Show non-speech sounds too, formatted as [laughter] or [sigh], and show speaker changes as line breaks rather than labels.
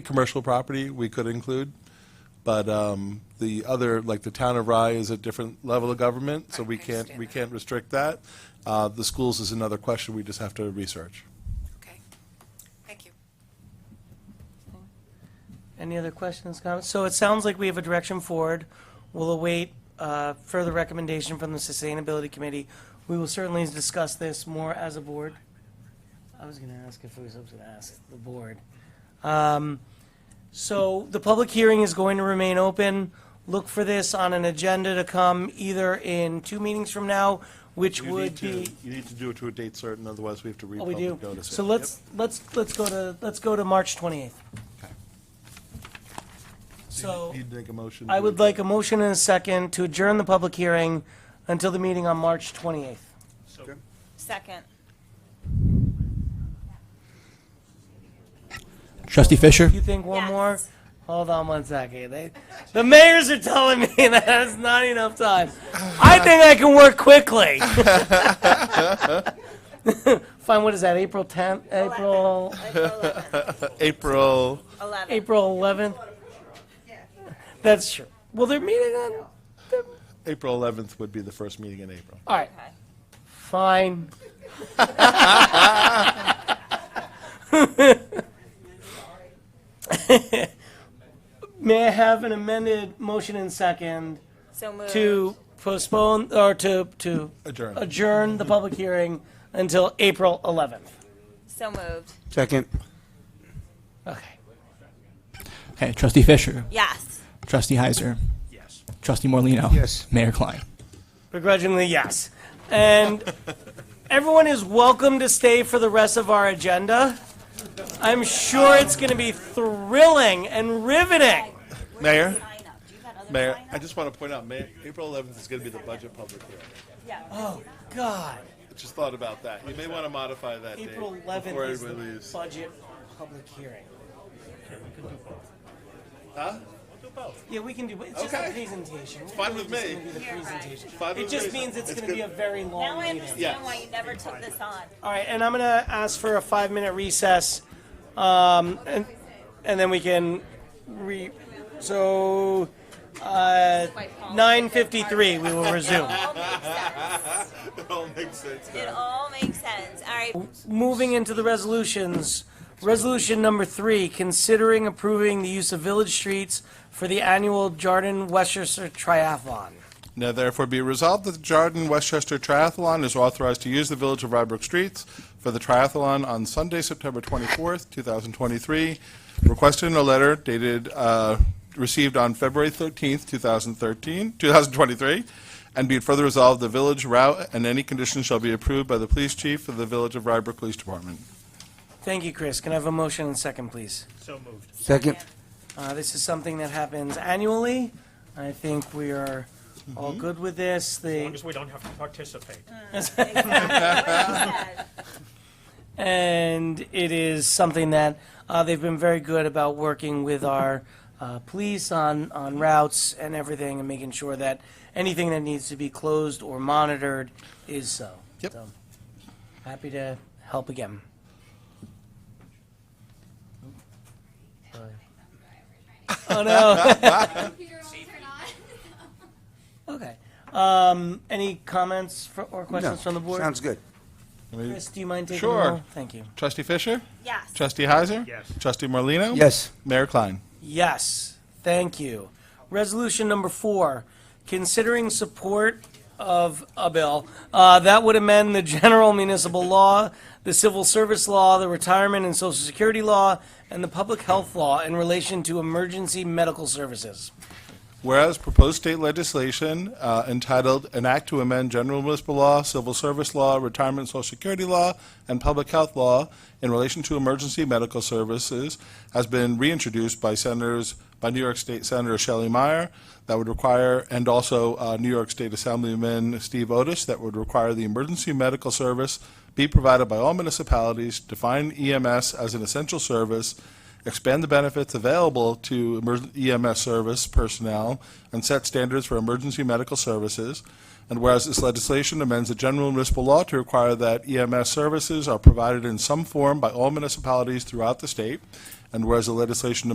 Commercial property, we could include, but um, the other, like the town of Rye is a different level of government, so we can't,
understand
we
that.
can't restrict that. Uh, The schools is another question we just have to research.
Okay, thank you.
Any other questions, comments? So it sounds like we have a direction forward. We'll await uh, further recommendation from the Sustainability Committee. We will certainly discuss this more as a board. I was going to ask if it was, I was going to ask the board. Um, So the public hearing is going to remain open. Look for this on an agenda to come either in two meetings from now, which
You need
would
to-
be.
You need to do it to a date certain, otherwise we have to
Oh, we do.
republic notice it.
So let's, let's, let's go to, let's go to March 28th. So
You'd make a motion.
I
to-
would like a motion and a second to adjourn the public hearing until the meeting on March 28th.
Second.
Trustee Fisher?
You think one
Yes.
more? Hold on one second. They, the mayors are telling me [laughs] that that's not enough time. I think I can work quickly. [laughs] Fine, what is that, April 10th, April,
April,
Eleven.
April 11th? That's true. Well, they're meeting on,
April 11th would be the first meeting in April.
all right.
Okay.
Fine. May I have an amended motion and second
So moved.
to postpone, or to, to
Adjourn.
adjourn the public hearing until April 11th?
So moved.
Second.
Okay.
Okay, Trustee Fisher?
Yes.
Trustee Heiser? Yes. Trustee Morlino? Yes. Mayor Klein?
Begrudgingly, yes. And everyone is welcome to stay for the rest of our agenda. I'm sure it's going to be thrilling and riveting.
Mayor,
Sign up. Do you have other
Mayor,
sign
I
up?
just want to point out, Mayor, April 11th is going to be the budget public hearing.
Yeah.
Oh, God.
Just thought about that. You may want to modify that date.
April
before
11th is
everybody
the
leaves.
budget public hearing.
Huh? We'll do both.
Yeah, we can do, but it's just a
Okay.
presentation. It's
fine with
just
me.
gonna be the presentation.
Fine
It
with
just
me.
means it's gonna
good.
be a very long
Now I
meeting.
understand why you never took this on.
All right, and I'm gonna ask for a five-minute recess, um, and, and then we can re, so, uh, nine fifty-three, we will resume.
It all makes
It all makes
sense.
sense
It
now.
all makes sense. All right.
Moving into the resolutions, resolution number three, considering approving the use of village streets for the annual Jordan Westchester Triathlon.
Now therefore be resolved that the Jarden Westchester Triathlon is authorized to use the Village of Rybrook streets for the triathlon on Sunday, September 24th, 2023. Requested in a letter dated, uh, received on February 13th, 2013, 2023. And be it further resolved, the village route and any conditions shall be approved by the police chief of the Village of Rybrook Police Department.
Thank you, Chris. Can I have a motion and second, please?
Second.
Uh, This is something that happens annually. I think we are all good with this.
Mm-hmm. As long
The,
as we don't have to participate.
Yes.
and it is something that uh, they've been very good about working with our uh, police on, on routes and everything and making sure that anything that needs to be closed or monitored is so.
Yep.
So, Happy to help again.
[laughs]
Oh, no. [laughs]
computer won't turn on.
Okay. Um, any comments fr- or questions from the board?
Sounds good.
Chris, do you mind taking
Sure.
the roll? Thank you.
Trustee Fisher?
Yes.
Trustee Heiser?
Yes.
Trustee Morlino?
Yes.
Mayor Klein?
Yes, thank you. Resolution number four, considering support of a bill uh, that would amend the general municipal law, the civil service law, the retirement and social security law, and the public health law in relation to emergency medical services.
Whereas proposed state legislation uh, entitled "An Act to Amend General Municipal Law, Civil Service Law, Retirement and Social Security Law, and Public Health Law in Relation to Emergency Medical Services" has been reintroduced by Senators, by New York State Senator Shelley Meyer, that would require, and also uh, New York State Assemblyman Steve Otis, that would require the emergency medical service be provided by all municipalities, define EMS as an essential service, expand the benefits available to emerg- EMS service personnel, and set standards for emergency medical services. And whereas this legislation amends the general municipal law to require that E EMS services are provided in some form by all municipalities throughout the state, and whereas the legislation